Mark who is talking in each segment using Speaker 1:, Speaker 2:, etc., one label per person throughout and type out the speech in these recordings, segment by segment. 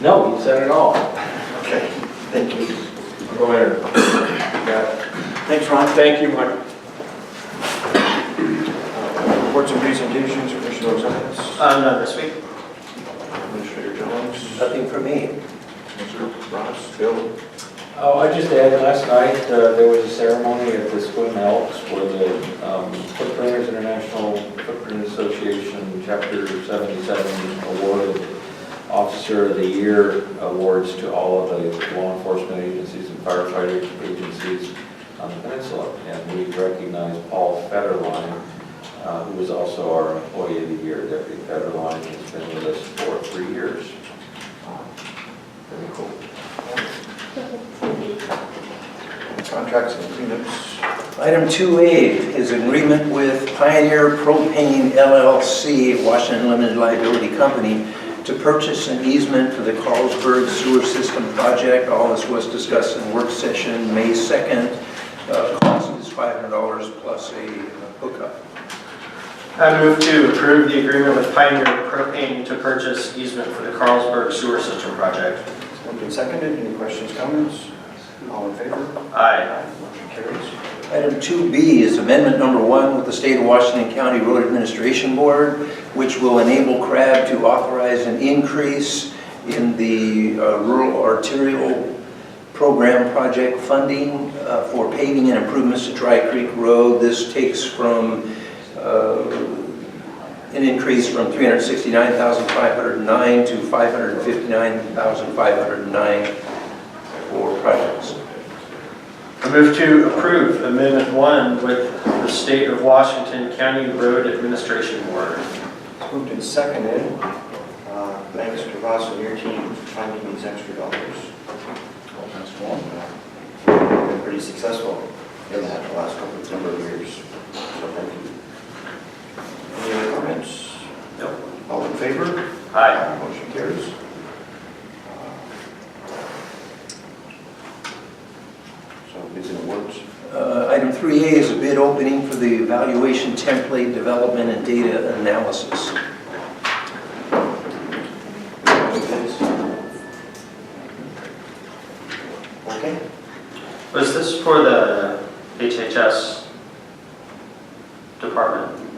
Speaker 1: No, you said it all.
Speaker 2: Okay, thank you.
Speaker 1: Go ahead. Yeah.
Speaker 2: Thanks, Ron.
Speaker 1: Thank you, Mike.
Speaker 2: Reports and presentations, Commissioner Rosales,
Speaker 3: Uh, no, this week?
Speaker 2: Commissioner Jones,
Speaker 3: Nothing for me.
Speaker 2: Commissioner Ross, Bill.
Speaker 4: Oh, I just added, last night, uh, there was a ceremony at the Swin Elks for the um, Footprinters International Footprint Association Chapter 77 awarded Officer of the Year awards to all of the law enforcement agencies and firefighter agencies on the peninsula. And we recognize Paul Federline, uh, who is also our Employee of the Year. Deputy Federline has been with us for three years.
Speaker 2: Very cool. Contracts and agreements.
Speaker 3: Item 2A is agreement with Pioneer Propane LLC, Washington Limited Liability Company, to purchase an easement for the Carlsberg Sewer System Project. All this was discussed in work session, May 2nd. Uh, Cost is $500 plus a hookup.
Speaker 5: I move to approve the agreement with Pioneer Propane to purchase easement for the Carlsberg Sewer System Project.
Speaker 2: It's moved and seconded, any questions, comments? All in favor?
Speaker 5: Aye.
Speaker 2: Motion carries.
Speaker 3: Item 2B is amendment number one with the State of Washington County Road Administration Board, which will enable CRAB to authorize an increase in the uh, rural arterial program project funding uh, for paving and improvements to Dry Creek Road. This takes from, uh, an increase from 369,509 to 559,509 for projects.
Speaker 5: I move to approve Amendment 1 with the State of Washington County Road Administration Board.
Speaker 2: It's moved and seconded. Uh, Thanks to Ross and your team for finding these extra dollars. That's one. Been pretty successful in that the last couple of number of years, so thank you. Any other comments?
Speaker 5: No.
Speaker 2: All in favor?
Speaker 5: Aye.
Speaker 2: Motion carries. So bids and awards.
Speaker 3: Uh, Item 3A is a bid opening for the evaluation template development and data analysis.
Speaker 2: Okay.
Speaker 5: Was this for the HHS department?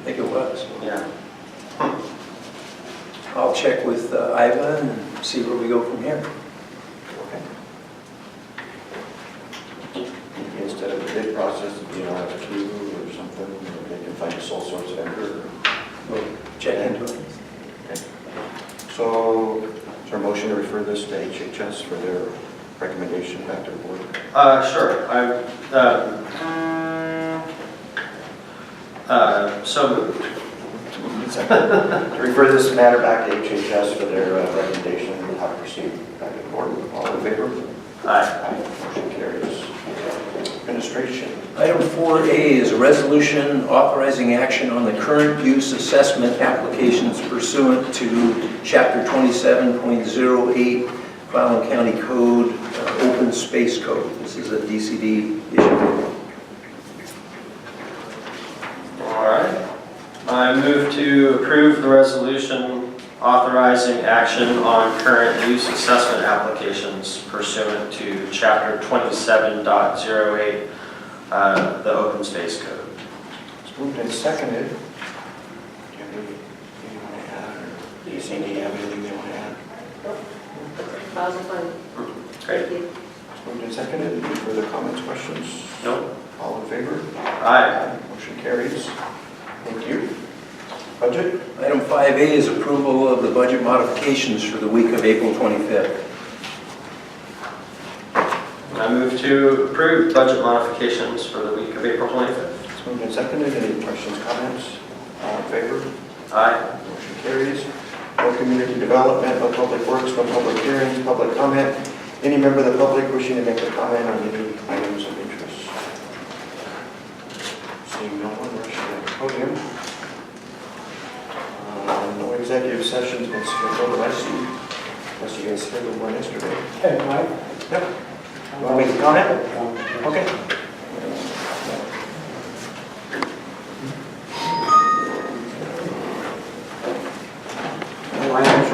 Speaker 3: I think it was.
Speaker 5: Yeah.
Speaker 3: I'll check with uh, Iva and see where we go from here.
Speaker 2: Okay. Maybe Instead of the bid process, you know, have a queue or something, or they can find a sole source vendor.
Speaker 3: We'll check into it.
Speaker 2: So, is there a motion to refer this to HHS for their recommendation back to the board?
Speaker 5: Uh, sure, I, um, uh, so moved.
Speaker 2: Second. To refer this matter back to HHS for their uh, recommendation and how to proceed back to the board. All in favor?
Speaker 5: Aye.
Speaker 2: Aye. Motion carries. Administration.
Speaker 3: Item 4A is a resolution authorizing action on the current use assessment applications pursuant to Chapter 27.08 Clallam County Code, uh, Open Space Code. This is a DCD issue.
Speaker 5: All right. I move to approve the resolution authorizing action on current use assessment applications pursuant to Chapter 27.08, uh, the Open Space Code.
Speaker 2: It's moved and seconded. Do you have anything you want to add, or do you see any, have anything they want to add?
Speaker 6: That was fun.
Speaker 5: Great.
Speaker 6: Thank you.
Speaker 2: It's moved and seconded, any further comments, questions?
Speaker 5: Nope.
Speaker 2: All in favor?
Speaker 5: Aye.
Speaker 2: Motion carries. Thank you. Budget?
Speaker 3: Item 5A is approval of the budget modifications for the week of April 25th.
Speaker 5: I move to approve budget modifications for the week of April 25th.
Speaker 2: It's moved and seconded, any questions, comments? All in favor?
Speaker 5: Aye.
Speaker 2: Motion carries. No community development, no public works, no public hearings, public comment. Any member of the public wishing to make a comment on any items of interest? Seeing no one, rush to the podium. Uh, No executive sessions been scheduled, unless you, unless you guys scheduled one yesterday.
Speaker 7: Hey, Mike?
Speaker 2: Yep. Want to make a comment?
Speaker 7: um,
Speaker 2: Okay.